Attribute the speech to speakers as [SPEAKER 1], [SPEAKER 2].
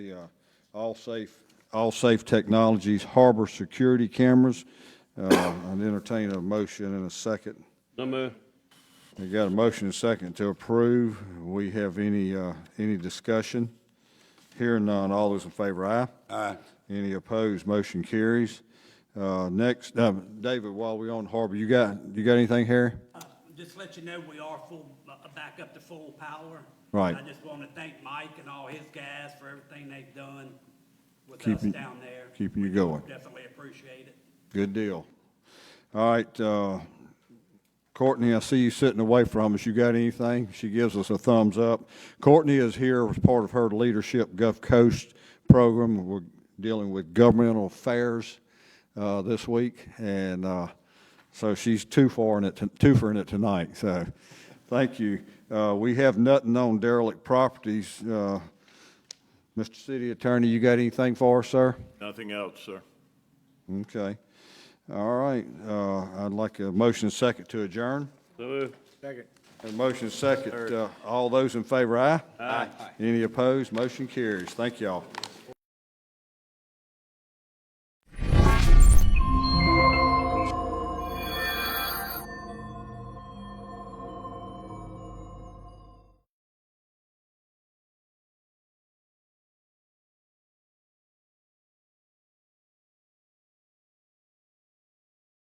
[SPEAKER 1] the uh, All Safe, All Safe Technologies Harbor Security Cameras. Uh, I'd entertain a motion in a second.
[SPEAKER 2] So moved.
[SPEAKER 1] We got a motion and a second to approve. We have any, uh, any discussion? Hearing none, all those in favor, aye? Aye. Any opposed, motion carries. Uh, Next, uh, David, while we on Harbor, you got, you got anything, Harry?
[SPEAKER 3] Uh, Just let you know, we are full, uh, back up to full power.
[SPEAKER 1] Right.
[SPEAKER 3] I just want to thank Mike and all his guys for everything they've done with us
[SPEAKER 1] Keeping-
[SPEAKER 3] down there.
[SPEAKER 1] keeping you going.
[SPEAKER 3] Definitely appreciate it.
[SPEAKER 1] Good deal. All right, uh, Courtney, I see you sitting away from us. You got anything? She gives us a thumbs up. Courtney is here as part of her leadership Gulf Coast program. We're dealing with governmental affairs uh, this week, and uh, so she's too far in it, too far in it tonight. So, thank you. Uh, we have nothing on derelict properties. Uh, Mr. City Attorney, you got anything for us, sir?
[SPEAKER 2] Nothing else, sir.
[SPEAKER 1] Okay. All right, uh, I'd like a motion and second to adjourn.
[SPEAKER 2] So moved.
[SPEAKER 1] A motion and second, uh, all those in favor, aye? Aye. Any opposed? Motion carries. Thank y'all.